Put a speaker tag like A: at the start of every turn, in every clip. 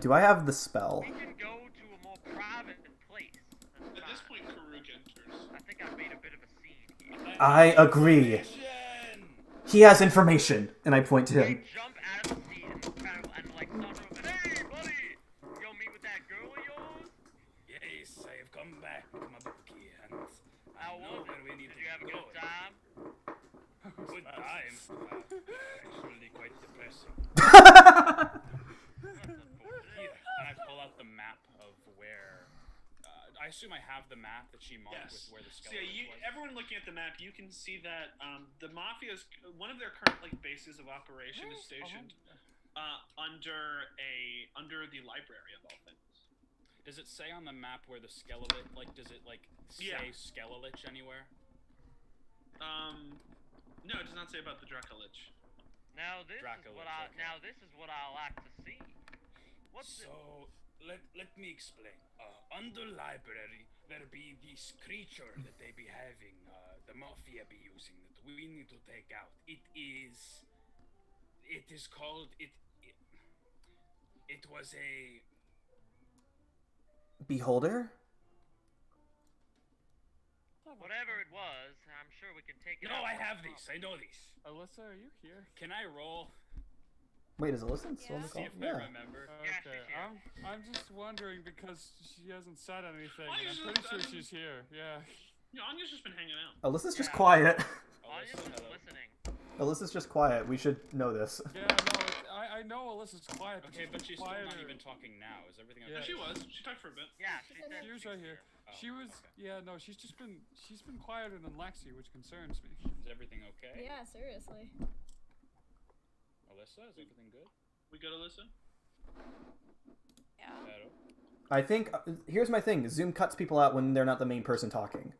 A: Do I have the spell?
B: We can go to a more private place. That's
C: At this
B: fine.
C: point, Karuk enters.
B: I think I've made a bit of a scene here.
A: I agree. He has information, and I point to
B: They
A: him.
B: jump out of the seat and kind of and like start over. Hey, buddy, you gonna meet with that girl of yours?
D: Yes, I have come back with my bookie hands.
B: How was it? Oh, Did you have a good time?
D: Good times. Actually, quite depressing. Here, and I pull out the map of where. Uh, I assume I have the map that she marked
C: Yes.
D: with where the
C: So yeah,
D: skeleton
C: you,
D: was.
C: everyone looking at the map, you can see that um, the mafia's one of their current like bases of operation is stationed uh, under a under the library of all things.
D: Does it say on the map where the skeleton? Like, does it like say
C: Yeah.
D: skelelich anywhere?
C: Um, no, it does not say about the Dracolich.
B: Now this
D: Dracula
B: is what I
D: took it.
B: now this is what I like to see. What's it?
D: So let let me explain. Uh, under library, there be this creature that they be having, uh, the mafia be using that we need to take out. It is, it is called it. It, it was a
A: Beholder?
B: Whatever it was, I'm sure we can take it.
D: no.
B: out
D: I
B: with a
D: have
B: pump.
D: this. I know this.
E: Alyssa, are you here?
D: Can I roll?
A: Wait, is Alyssa still on
F: Yeah.
A: the
D: See
A: call?
D: if I
A: Yeah.
D: remember.
B: Yeah, she's
E: Okay,
B: here.
E: I'm, I'm just wondering because she hasn't said anything.
C: Why
E: and
C: is
E: I'm
C: it-
E: pretty sure
C: um,
E: she's here. Yeah.
C: You know, Anya's just been hanging out.
A: Alyssa's just
B: Yeah.
A: quiet.
B: Audience Oh,
D: Alyssa,
B: is
D: Oh, hello.
B: listening.
A: Alyssa's just quiet. We should know this.
E: Yeah, no, it's, I, I know Alyssa's quiet, but
D: Okay,
E: she's
D: but
E: been
D: she's still
E: quieter.
D: not even talking now. Is everything
E: Yeah.
C: No,
D: okay?
C: she was. She talked for a bit.
B: Yeah, she said.
E: She was right here.
D: Oh,
E: she was,
D: okay.
E: yeah, no, she's just been, she's been quieter than Lexi, which concerns me.
D: Is everything okay?
F: Yeah, seriously.
D: Alyssa, is everything good?
C: We go to listen.
F: Yeah.
D: Hello.
A: I think uh, here's my thing. Zoom cuts people out when they're not the main person talking.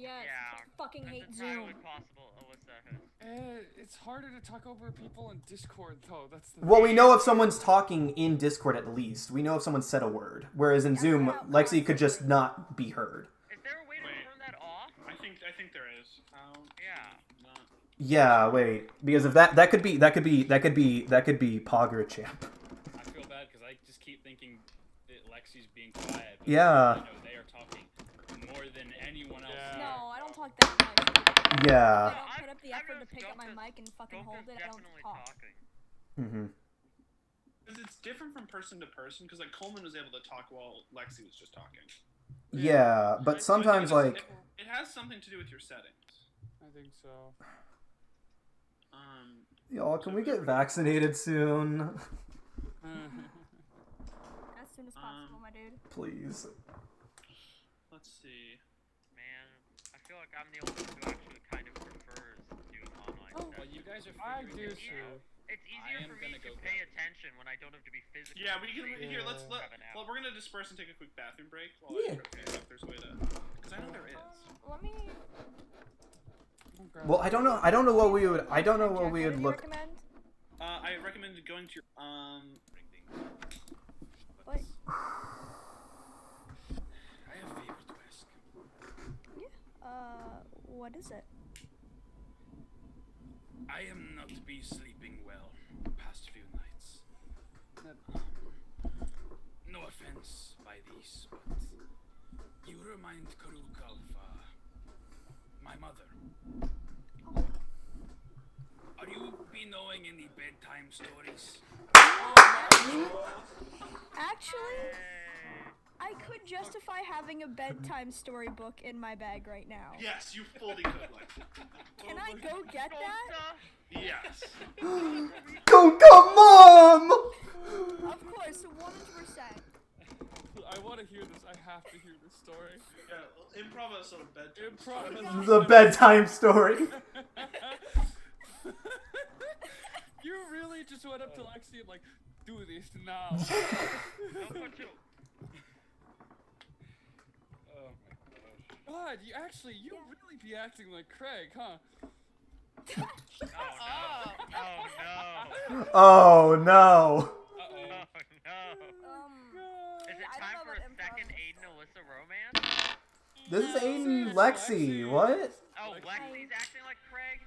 F: Yeah.
B: Yeah.
F: Fucking
B: That's
F: hate
B: entirely
F: Zoom.
B: possible, Alyssa.
E: Uh, it's harder to talk over people in Discord, though. That's the
A: Well, we know if someone's talking in Discord at least. We know if someone said a word. Whereas in Zoom, Lexi could just not be heard.
B: Is there a way to
C: Wait.
B: turn that off?
C: I think I think there is. How?
B: Yeah.
C: Not.
A: Yeah, wait. Because if that that could be that could be that could be that could be Pogger champ.
D: I feel bad because I just keep thinking that Lexi's being quiet. But
A: Yeah.
D: You know, they are talking more than anyone else.
E: Yeah.
F: No, I don't talk that much.
A: Yeah.
F: I
B: Uh,
F: don't
B: I've-
F: put up the
B: I've
F: effort to
B: noticed
F: pick up my
B: Goka's-
F: mic and fucking hold
B: Goka's
F: it. I don't
B: definitely
F: talk.
B: talking.
A: Mm-hmm.
C: Because it's different from person to person. Because like Coleman was able to talk while Lexi was just talking.
A: Yeah,
C: So I- so I
A: but
C: think
A: sometimes
C: it's-
A: like
C: it, it has something to do with your settings.
E: I think so.
C: Um,
A: y'all, can we get vaccinated soon?
F: As soon as
C: Um,
F: possible, my dude.
A: Please.
C: let's see.
B: Man, I feel like I'm the only one who actually kind of prefers doing online
F: Oh.
B: stuff.
D: Well, you guys are.
E: I do
D: figuring this
E: too.
D: out.
B: It's easier
D: am
B: for me
D: gonna
B: to
D: go
B: pay
D: grab-
B: attention when I don't have to be physically.
C: Yeah, we can.
B: present.
C: Here, let's. Let,
B: Have an hour.
C: well, we're gonna disperse and take a quick bathroom break while
A: Yeah.
C: I try to figure out if there's a way to. Because I know there
F: Um,
C: is.
F: let me.
E: Okay.
A: Well, I don't know. I don't know what we would. I don't know what we would look.
F: Recommend?
C: Uh, I recommend going to your. Um,
F: What?
D: I have a favor to ask.
F: Uh, what is it?
D: I am not be sleeping well past few nights. Um, No offense by these, but you remind Karuk of uh, my mother. Are you be knowing any bedtime stories?
F: Actually, I could justify having a bedtime storybook in my bag right now.
C: yes, you fully could. Like,
F: Can I go get
B: Oh,
F: that?
B: Goka,
C: yes.
A: Go, go, mom!
F: Of course, 100%.
E: I want to hear this. I have to hear this story.
C: Yeah, well, improv us on bedtime.
E: Improv.
C: stories.
A: The bedtime story.
E: you really just went up to Lexi and like, do this now.
B: Goka too.
D: Oh my gosh.
E: God, you actually, you really be acting like Craig, huh?
B: Oh no! Oh
A: Oh
B: no!
A: no.
B: Oh
D: Uh oh.
B: no!
F: Um,
E: God.
B: Is it
F: I don't
B: time
F: know
B: for a
F: about improv.
B: second Aiden Alyssa romance?
A: This is Aiden Lexi. What?
B: Oh,
E: Lexi.
B: Lexi's acting like Craig?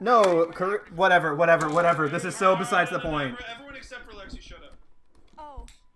A: No, cor- whatever, whatever, whatever. This is so besides the
C: No, no, no,
A: point.
C: Everyone except for Lexi, shut up.
F: oh,